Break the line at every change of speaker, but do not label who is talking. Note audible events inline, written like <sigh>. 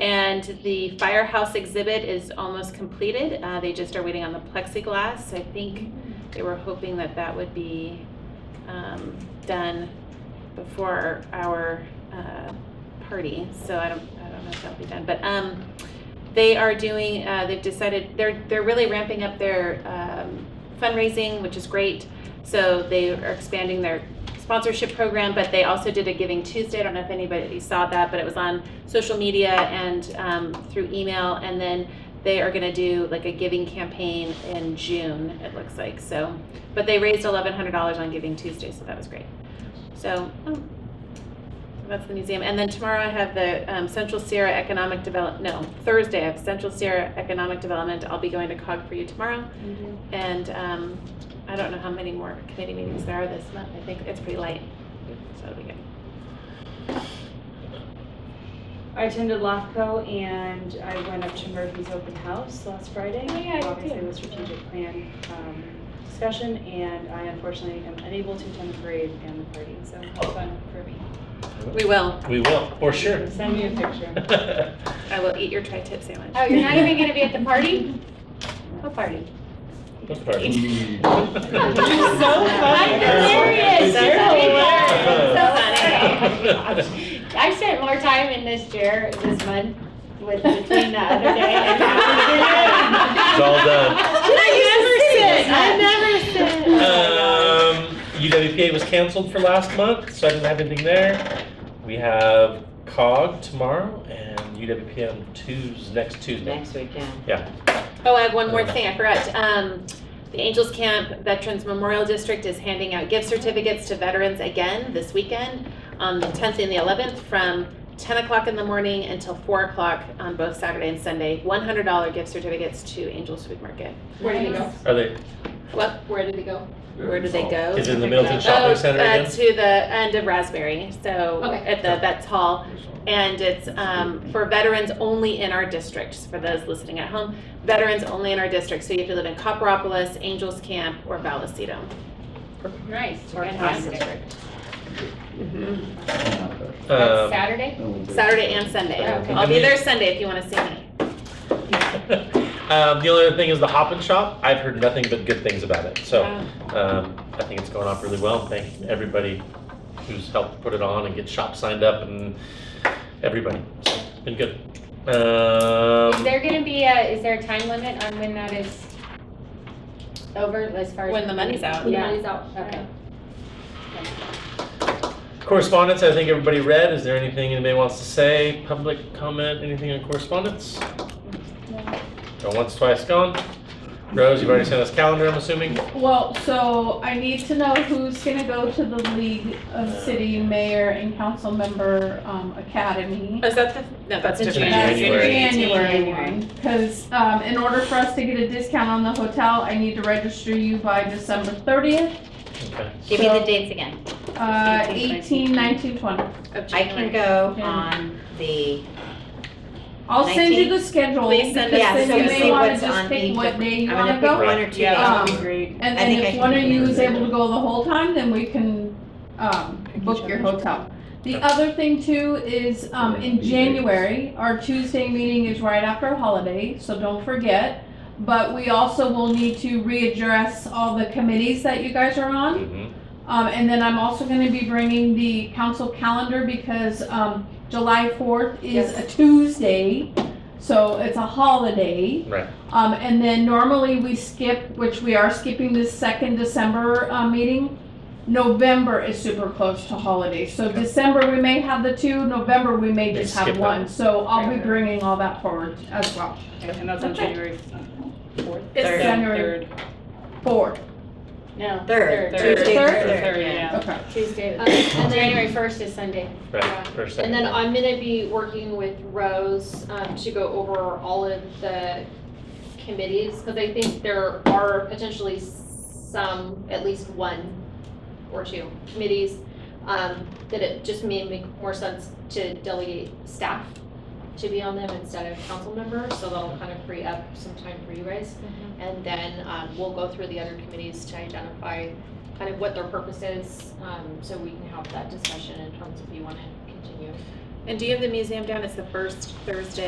And the firehouse exhibit is almost completed. Uh, They just are waiting on the plexiglass. I think they were hoping that that would be um, done before our uh, party, so I don't, I don't know if that'll be done. But um, they are doing, uh, they've decided, they're, they're really ramping up their um, fundraising, which is great. So they are expanding their sponsorship program, but they also did a Giving Tuesday. I don't know if anybody saw that, but it was on social media and um, through email. And then they are going to do like a giving campaign in June, it looks like. So, but they raised $1,100 on Giving Tuesday, so that was great. So, oh, that's the museum. And then tomorrow I have the um, Central Sierra Economic Develop, no, Thursday I have Central Sierra Economic Development. I'll be going to COG for you tomorrow. And um, I don't know how many more committee meetings there are this month. I think it's pretty light. So it'll be good.
I attended LAFCO and I went up to Murphy's open house last Friday.
Oh, yeah, I did
Obviously,
too.
the strategic plan um, discussion, and I unfortunately am unable to attend the parade and the party, so have fun for me.
We will.
We will, for sure.
Send me a <laughs> picture.
I will eat your tri-tip sandwich.
Oh, you're not even gonna be at the party? What party?
That's perfect.
I'm hilarious.
That's
You're
funny.
hilarious. I spent more time in this chair this month with, between the other day and
It's all done.
I never sit. I never
Um,
sit.
UWPA was canceled for last month, so I didn't have anything there. We have COG tomorrow and UWPA on Tuesday, next Tuesday.
Next weekend.
Oh, I have one more thing, I forgot. Um, the Angels Camp Veterans Memorial District is handing out gift certificates to veterans again this weekend on the tenth and the eleventh from ten o'clock in the morning until four o'clock on both Saturday and Sunday. One hundred dollar gift certificates to Angels Food Market.
Where did it go?
Are they,
What, where did they go? Where did they go?
is it in the Middleton
Oh,
Shopping Center
uh,
again?
to the end of Raspberry, so
Okay.
at the Vets Hall. And it's um, for veterans only in our districts, for those listening at home, veterans only in our district. So you have to live in Copperopolis, Angels Camp, or Vallecito.
Nice.
Or in our district. Mhm.
That's
Um,
Saturday?
Saturday and Sunday.
Okay.
I'll be there Sunday if you want to see me.
<laughs> um, the only other thing is the Hop and Shop. I've heard nothing but good things about it, so. Um, I think it's going off really well. Thank everybody who's helped put it on and get shops signed up and everybody. So, it's Been good.
Is
Um,
there gonna be a, is there a time limit on when that is over as far as?
When the money's out.
Yeah.
Okay.
Okay.
correspondence, I think everybody read. Is there anything anybody wants to say? Public comment, anything on correspondence? Go once, twice, gone. Rose, you've already sent us calendar, I'm assuming.
Well, so I need to know who's gonna go to the League of City Mayor and Council Member um, Academy.
Is that the, no, that's
That's
different.
That's the
January.
January one, because um, in order for us to get a discount on the hotel, I need to register you by December thirtieth.
Okay.
Give me the dates again.
Uh, eighteen, nineteen, twenty.
Of
I can
January.
go
Yeah.
on the,
I'll send you the schedule,
Please
because
send
us-
then
Yeah,
you
so see
may wanna
what's on
just pick
each
what
of-
day
I'm
you
gonna
wanna
pick
go.
one or two.
Yeah.
days.
Um,
Great.
And
I
then
think I
if
can
one of
pick
you
one.
is able to go the whole time, then we can, um, book your hotel. The other thing too is, um, in January, our Tuesday meeting is right after a holiday, so don't forget. But we also will need to readdress all the committees that you guys are on.
Mhm.
Um, and then I'm also gonna be bringing the council calendar because, um, July fourth is a Tuesday, so it's a holiday.
Right.
Um, and then normally we skip, which we are skipping this second December, uh, meeting. November is super close to holidays, so
Okay.
December we may have the two, November we may
May
just
skip
have
that one.
one, so I'll be
Right.
bringing all that forward as well.
And that's on January fourth.
It's
Third.
January.
Third.
Four,
No.
Third.
Third.
Tuesday,
Third?
third,
Third,
yeah.
yeah.
okay. uh,
Tuesday.
Um, and then,
January first is Sunday.
Right. First, second,
and then
third.
I'm gonna be working with Rose, um, to go over all of the committees, cause I think there are potentially some, at least one or two committees, um, that it just may make more sense to delegate staff to be on them instead of council members, so that'll kind of free up some time for you guys. And then, um, we'll go through the other committees to identify kind of what their purpose is, um, so we can have that discussion in terms of if you wanna continue.
And do you have the museum down? It's the first Thursday